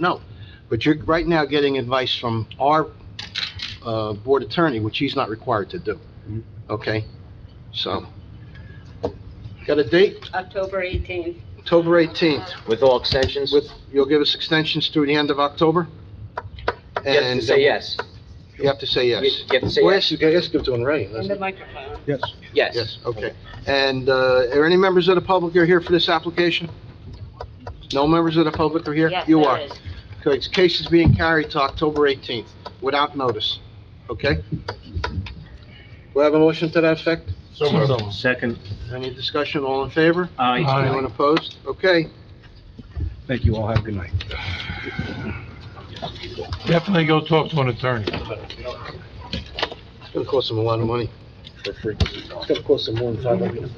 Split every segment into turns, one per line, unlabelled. No, but you're right now getting advice from our uh, board attorney, which he's not required to do,
Mhm.
okay? So, got a date,
October 18th.
October 18th,
With all extensions?
with, you'll give us extensions through the end of October?
You have to
And
say yes.
You have to say
You
yes.
you have to say
Well,
yes.
yes, you guys give it to him right,
In
doesn't
the
it?
microphone.
Yes.
Yes.
Yes, okay. And uh, are any members of the public are here for this application? No members of the public are here?
Yes,
You
there
are.
is.
Okay, this case is being carried to October 18th without notice, okay? We have a motion to that effect?
So moved.
Second,
Any discussion, all in favor? Anyone
aye.
opposed? Okay,
Thank you all, have a good night.
Definitely go talk to an attorney.
it's gonna cost them a lot of money. It's gonna cost them more than five hundred.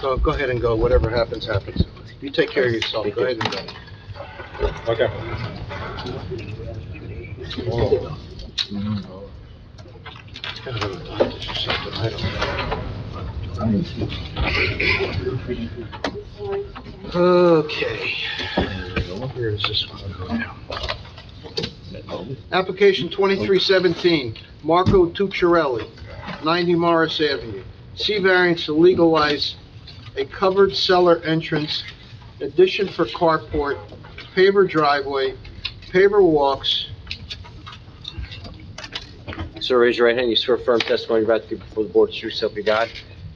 So go ahead and go, whatever happens, happens. You take care of yourself, go ahead and go. Okay. Where is this one going now? Application 2317, Marco Tucciarelli, 90 Morris Avenue. C variance to legalize a covered cellar entrance, addition for carport, paver driveway, paver walks.
Sir, raise your right hand. You swear firm testimony you're about to give before the board is true self you got.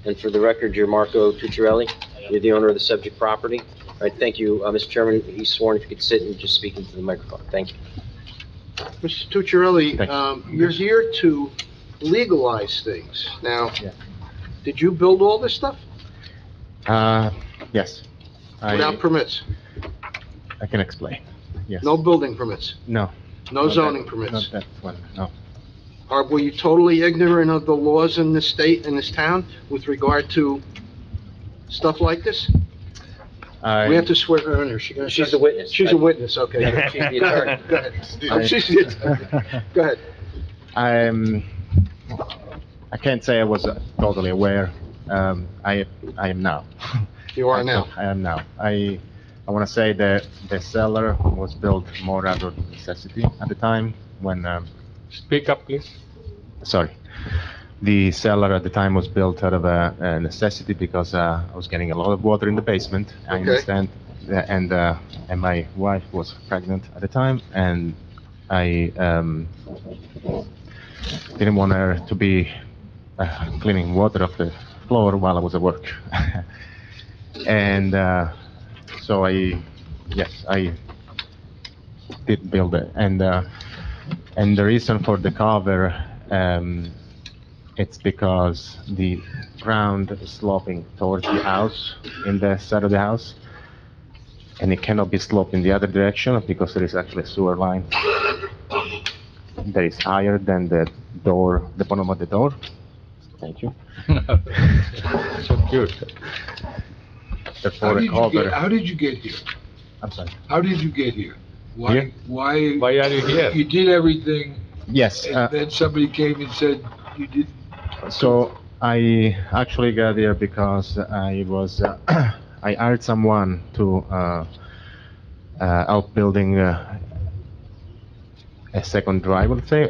And for the record, you're Marco Tucciarelli. You're the owner of the subject property. All right, thank you, Uh, Mr. Chairman. He's sworn if you could sit and just speak into the microphone. Thank you.
Mr. Tucciarelli,
Thanks.
um, you're here to legalize things. Now,
Yeah.
did you build all this stuff
Uh, yes.
without
I,
permits?
I can explain. Yes.
No building permits,
No.
no
not
zoning
that-
permits?
Not that one, no.
Are, were you totally ignorant of the laws in this state, in this town, with regard to stuff like this? We have
I,
to swear her in here, she gonna...
She's the witness.
She's a witness, okay.
She's
Go
the attorney.
ahead. She's the attorney. Go ahead.
I'm, I can't say I was uh, totally aware. Um, I, I am now.
You are now.
I am now. I, I want to say that the cellar was built more out of necessity at the time when, um,
Speak up, please.
sorry. The cellar at the time was built out of a, a necessity because uh, I was getting a lot of water in the basement. I
Okay.
understand, that- and uh, and my wife was pregnant at the time, and I um, didn't want her to be uh, cleaning water off the floor while I was at work. and uh, so I, yes, I did build it, and uh, and the reason for the cover, um, it's because the ground is sloping towards the house, in the side of the house, and it cannot be sloped in the other direction because there is actually a sewer line that is higher than the door, the bottom of the door. Thank you.
How
Therefore, the
did you get,
cover,
how did you get here?
I'm sorry.
How did you get here?
Here?
Why, why,
Why are you here?
you did everything,
Yes, uh,
and then somebody came and said you did,
So I actually got here because I was, uh, I hired someone to uh, uh, help building uh, a second drive, let's say,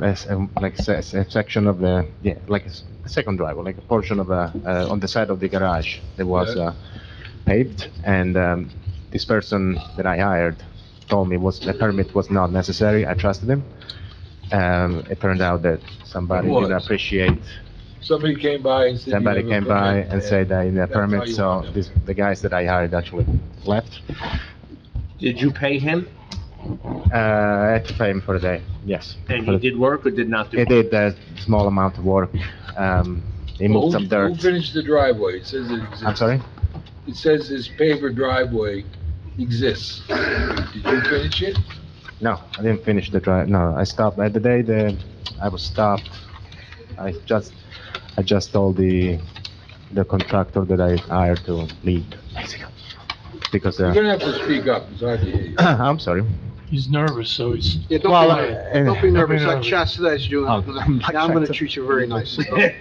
or as, um, like se- se- a section of the, yeah, like a s- a second drive, or like a portion of a, uh, on the side of the garage that was
Yeah.
uh, paved. And um, this person that I hired told me was, the permit was not necessary. I trusted him. Um, It turned out that somebody
It
didn't
was.
appreciate
somebody came by and said. you
Somebody
have a
came by
permit.
and said that in the
That's how
permit,
you
so
want it.
this, the guys that I hired actually left.
Did you pay him?
Uh, I had to pay him for the day, yes.
And
For
he
the-
did work or did not do?
He did a small amount of work, um, he
Who-
moved some
Who
dirt.
finished the driveway? It says it exists.
I'm sorry?
It says this paver driveway exists. Did you finish it?
No, I didn't finish the drive, no, I stopped, at the day that I was stopped, I just, I just told the, the contractor that I hired to leave, basically. Because,
You're
uh,
gonna have to speak up, it's hard to hear you.
I'm sorry.
He's nervous, so he's...
Yeah, don't
Well,
be nervous,
uh,
don't be nervous, I
nervous.
chastised you,
Oh,
now I'm gonna
chastised.
treat you very nicely.